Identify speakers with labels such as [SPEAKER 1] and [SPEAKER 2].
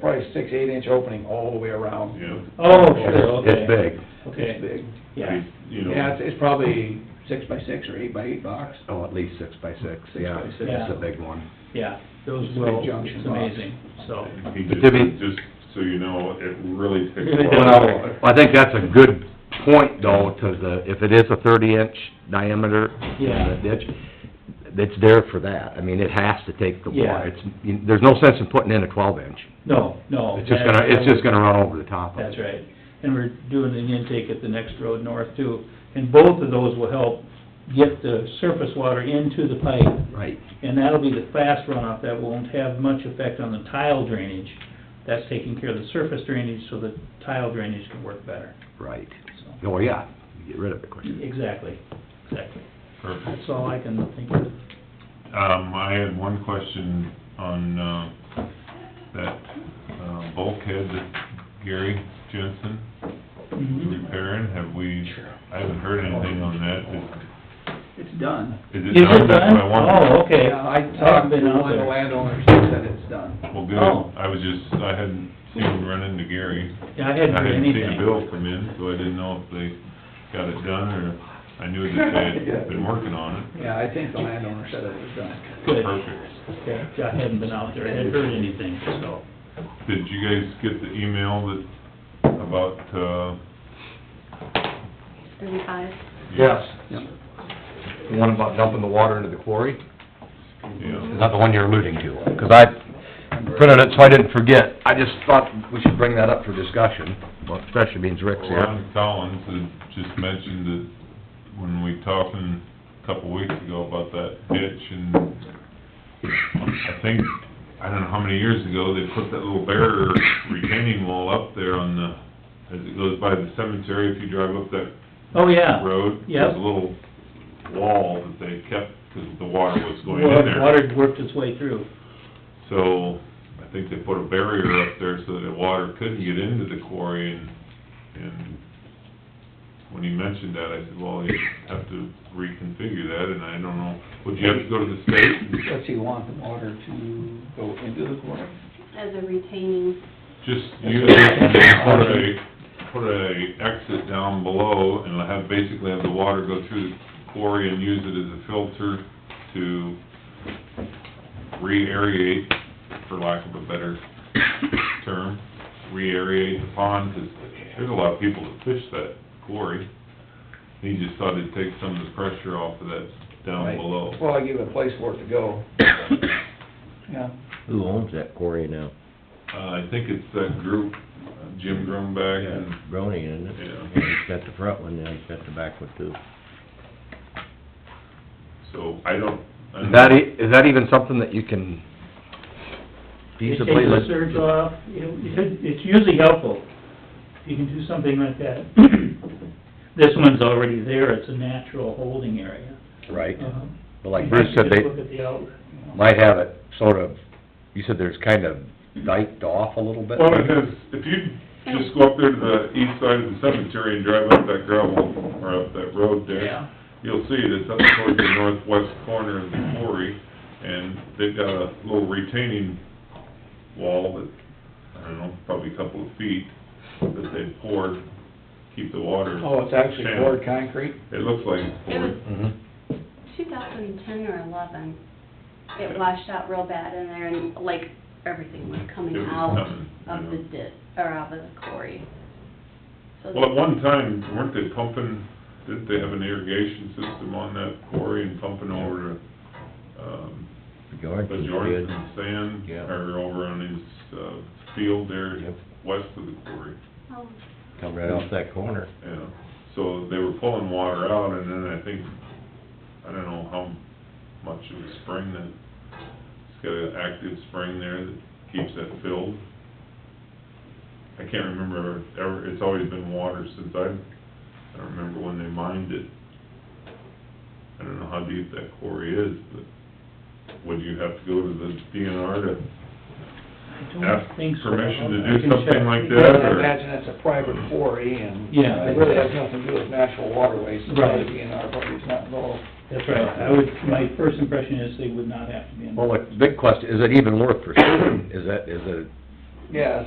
[SPEAKER 1] probably six, eight inch opening all the way around.
[SPEAKER 2] yeah.
[SPEAKER 3] Oh, sure, okay.
[SPEAKER 4] It's big.
[SPEAKER 1] It's
[SPEAKER 3] Okay,
[SPEAKER 1] big.
[SPEAKER 3] yeah.
[SPEAKER 2] You
[SPEAKER 1] Yeah,
[SPEAKER 2] know,
[SPEAKER 1] it's, it's probably six by six or eight by eight box.
[SPEAKER 4] Oh, at least six by six,
[SPEAKER 1] Six
[SPEAKER 4] yeah,
[SPEAKER 1] by six.
[SPEAKER 4] it's a big one.
[SPEAKER 3] Yeah, those
[SPEAKER 1] It's a big
[SPEAKER 3] will,
[SPEAKER 1] junction
[SPEAKER 3] it's
[SPEAKER 1] box.
[SPEAKER 3] amazing, so,
[SPEAKER 2] he
[SPEAKER 4] But to
[SPEAKER 2] just,
[SPEAKER 4] be-
[SPEAKER 2] just so you know, it really takes
[SPEAKER 3] Really
[SPEAKER 2] a
[SPEAKER 3] does.
[SPEAKER 2] lot.
[SPEAKER 4] Well, I think that's a good point though, to the, if it is a thirty inch diameter
[SPEAKER 3] Yeah.
[SPEAKER 4] in the ditch, it's there for that. I mean, it has to take the
[SPEAKER 3] Yeah.
[SPEAKER 4] water. It's, you- there's no sense in putting in a twelve inch.
[SPEAKER 3] no, no.
[SPEAKER 4] It's just
[SPEAKER 3] that-
[SPEAKER 4] gonna, it's just gonna run over the top of it.
[SPEAKER 3] That's right, and we're doing an intake at the next road north too, and both of those will help get the surface water into the pipe,
[SPEAKER 4] Right.
[SPEAKER 3] and that'll be the fast runoff, that won't have much effect on the tile drainage. That's taking care of the surface drainage, so the tile drainage can work better,
[SPEAKER 4] Right.
[SPEAKER 3] so,
[SPEAKER 4] Oh, yeah, get rid of it quick.
[SPEAKER 3] exactly, exactly.
[SPEAKER 2] Perfect.
[SPEAKER 3] That's all I can think of.
[SPEAKER 2] Um, I had one question on, uh, that, uh, bulkhead that Gary Jensen was
[SPEAKER 1] Mm-hmm.
[SPEAKER 2] repairing, have we, I haven't heard anything on that,
[SPEAKER 1] It's done.
[SPEAKER 2] is
[SPEAKER 3] Is
[SPEAKER 2] it done?
[SPEAKER 3] it
[SPEAKER 2] That's
[SPEAKER 3] done?
[SPEAKER 2] what I wanted.
[SPEAKER 3] Oh, okay.
[SPEAKER 1] Yeah, I
[SPEAKER 3] haven't
[SPEAKER 1] talked to
[SPEAKER 3] been out
[SPEAKER 1] one of the
[SPEAKER 3] there.
[SPEAKER 1] landowners, he said it's done.
[SPEAKER 2] Well,
[SPEAKER 3] Oh.
[SPEAKER 2] good, I was just, I hadn't seen him run into Gary.
[SPEAKER 3] Yeah, I hadn't
[SPEAKER 2] I
[SPEAKER 3] heard
[SPEAKER 2] hadn't
[SPEAKER 3] anything.
[SPEAKER 2] seen a bill come in, so I didn't know if they got it done, or, I knew that they had been working on it.
[SPEAKER 1] Yeah, I think the landowner said it was done.
[SPEAKER 3] Good.
[SPEAKER 2] Perfect.
[SPEAKER 3] Okay, I hadn't been out there, I hadn't heard anything, so.
[SPEAKER 2] Did you guys get the email that, about, uh,
[SPEAKER 5] Thirty-five.
[SPEAKER 4] Yes.
[SPEAKER 1] Yep.
[SPEAKER 4] The one about dumping the water into the quarry?
[SPEAKER 2] yeah,
[SPEAKER 4] Is that the one you're alluding to? 'Cause I printed it so I didn't forget. I just thought we should bring that up for discussion, well, especially means Rick's here.
[SPEAKER 2] Ron Collins had just mentioned that when we talked in, a couple weeks ago about that ditch, and I think, I don't know how many years ago, they put that little barrier retaining wall up there on the, as it goes by the cemetery, if you drive up that
[SPEAKER 3] Oh, yeah.
[SPEAKER 2] road,
[SPEAKER 3] Yeah.
[SPEAKER 2] there's a little wall that they kept, 'cause the water was going
[SPEAKER 3] Well,
[SPEAKER 2] in there.
[SPEAKER 3] Water worked its way through.
[SPEAKER 2] So, I think they put a barrier up there so that water couldn't get into the quarry, and, and when he mentioned that, I said, well, you have to reconfigure that, and I don't know, would you have to go to the state?
[SPEAKER 1] Does he want the water to go into the quarry?
[SPEAKER 5] As a retaining,
[SPEAKER 2] Just use it and then put a, put a exit down below, and have, basically have the water go through the quarry and use it as a filter to re-aerate, for lack of a better term, re-aerate the pond, 'cause there's a lot of people that fish that quarry. He just thought it'd take some of the pressure off of that down
[SPEAKER 1] Right.
[SPEAKER 2] below.
[SPEAKER 1] Well, I give it a place for it to go. Yeah.
[SPEAKER 6] Who owns that quarry now?
[SPEAKER 2] Uh, I think it's that group, uh, Jim Grumback and
[SPEAKER 6] Brony, isn't it?
[SPEAKER 2] Yeah.
[SPEAKER 6] He's got the front one, and he's got the back one too.
[SPEAKER 2] So I don't. I don't-
[SPEAKER 4] Is that, e- is that even something that you can feasibly?
[SPEAKER 3] It takes
[SPEAKER 4] let-
[SPEAKER 3] the surge off, it, it- it's usually helpful, if you can do something like that. This one's already there, it's a natural holding area.
[SPEAKER 4] Right,
[SPEAKER 3] Um,
[SPEAKER 4] but like
[SPEAKER 3] you
[SPEAKER 4] Bruce
[SPEAKER 3] have to
[SPEAKER 4] said,
[SPEAKER 3] just
[SPEAKER 4] they
[SPEAKER 3] Look at the outlet.
[SPEAKER 4] might have it sort of, you said there's kind of diked off a little bit?
[SPEAKER 2] Well, because if you just go up there to the east side of the cemetery and drive up that gravel, or up that road there,
[SPEAKER 3] Yeah.
[SPEAKER 2] you'll see that it's up towards the northwest corner of the quarry, and they've got a little retaining wall that, I don't know, probably a couple of feet, that they poured, keep the water.
[SPEAKER 1] Oh, it's actually
[SPEAKER 2] channeled.
[SPEAKER 1] poured concrete?
[SPEAKER 2] It looks like it's
[SPEAKER 5] it was
[SPEAKER 2] poured.
[SPEAKER 4] Mhm.
[SPEAKER 2] Mm-hmm.
[SPEAKER 5] two thousand ten or eleven. It washed out real bad in there and like everything was coming
[SPEAKER 2] It was
[SPEAKER 5] out
[SPEAKER 2] coming,
[SPEAKER 5] of the
[SPEAKER 2] yeah.
[SPEAKER 5] ditch, or out of the quarry. So
[SPEAKER 2] Well, at one time, weren't they pumping, didn't they have an irrigation system on that quarry and pumping over to, um,
[SPEAKER 6] George
[SPEAKER 2] But
[SPEAKER 6] was
[SPEAKER 2] Jordan's
[SPEAKER 6] good.
[SPEAKER 2] sand,
[SPEAKER 6] Yeah.
[SPEAKER 2] or over on his, uh, field there,
[SPEAKER 6] Yep.
[SPEAKER 2] west of the quarry,
[SPEAKER 5] Oh,
[SPEAKER 6] Come right off that corner.
[SPEAKER 2] yeah. So they were pulling water out, and then I think, I don't know how much of a spring that, it's got an active spring there that keeps that filled. I can't remember, ever, it's always been water since I, I don't remember when they mined it. I don't know how deep that quarry is, but would you have to go to the DNR to
[SPEAKER 3] I don't
[SPEAKER 2] ask
[SPEAKER 3] think so.
[SPEAKER 2] permission to
[SPEAKER 3] I
[SPEAKER 2] do
[SPEAKER 3] can
[SPEAKER 2] something
[SPEAKER 3] check.
[SPEAKER 2] like that,
[SPEAKER 1] Because I
[SPEAKER 2] or,
[SPEAKER 1] imagine it's a private quarry and
[SPEAKER 3] Yeah.
[SPEAKER 1] it really has nothing to do with natural waterways. It's
[SPEAKER 3] Right.
[SPEAKER 1] probably DNR, probably it's not involved.
[SPEAKER 3] That's right, I would, my first impression is they would not have to be involved.
[SPEAKER 4] Well, the big question, is it even worth pursuing? Is that, is it
[SPEAKER 1] Yeah,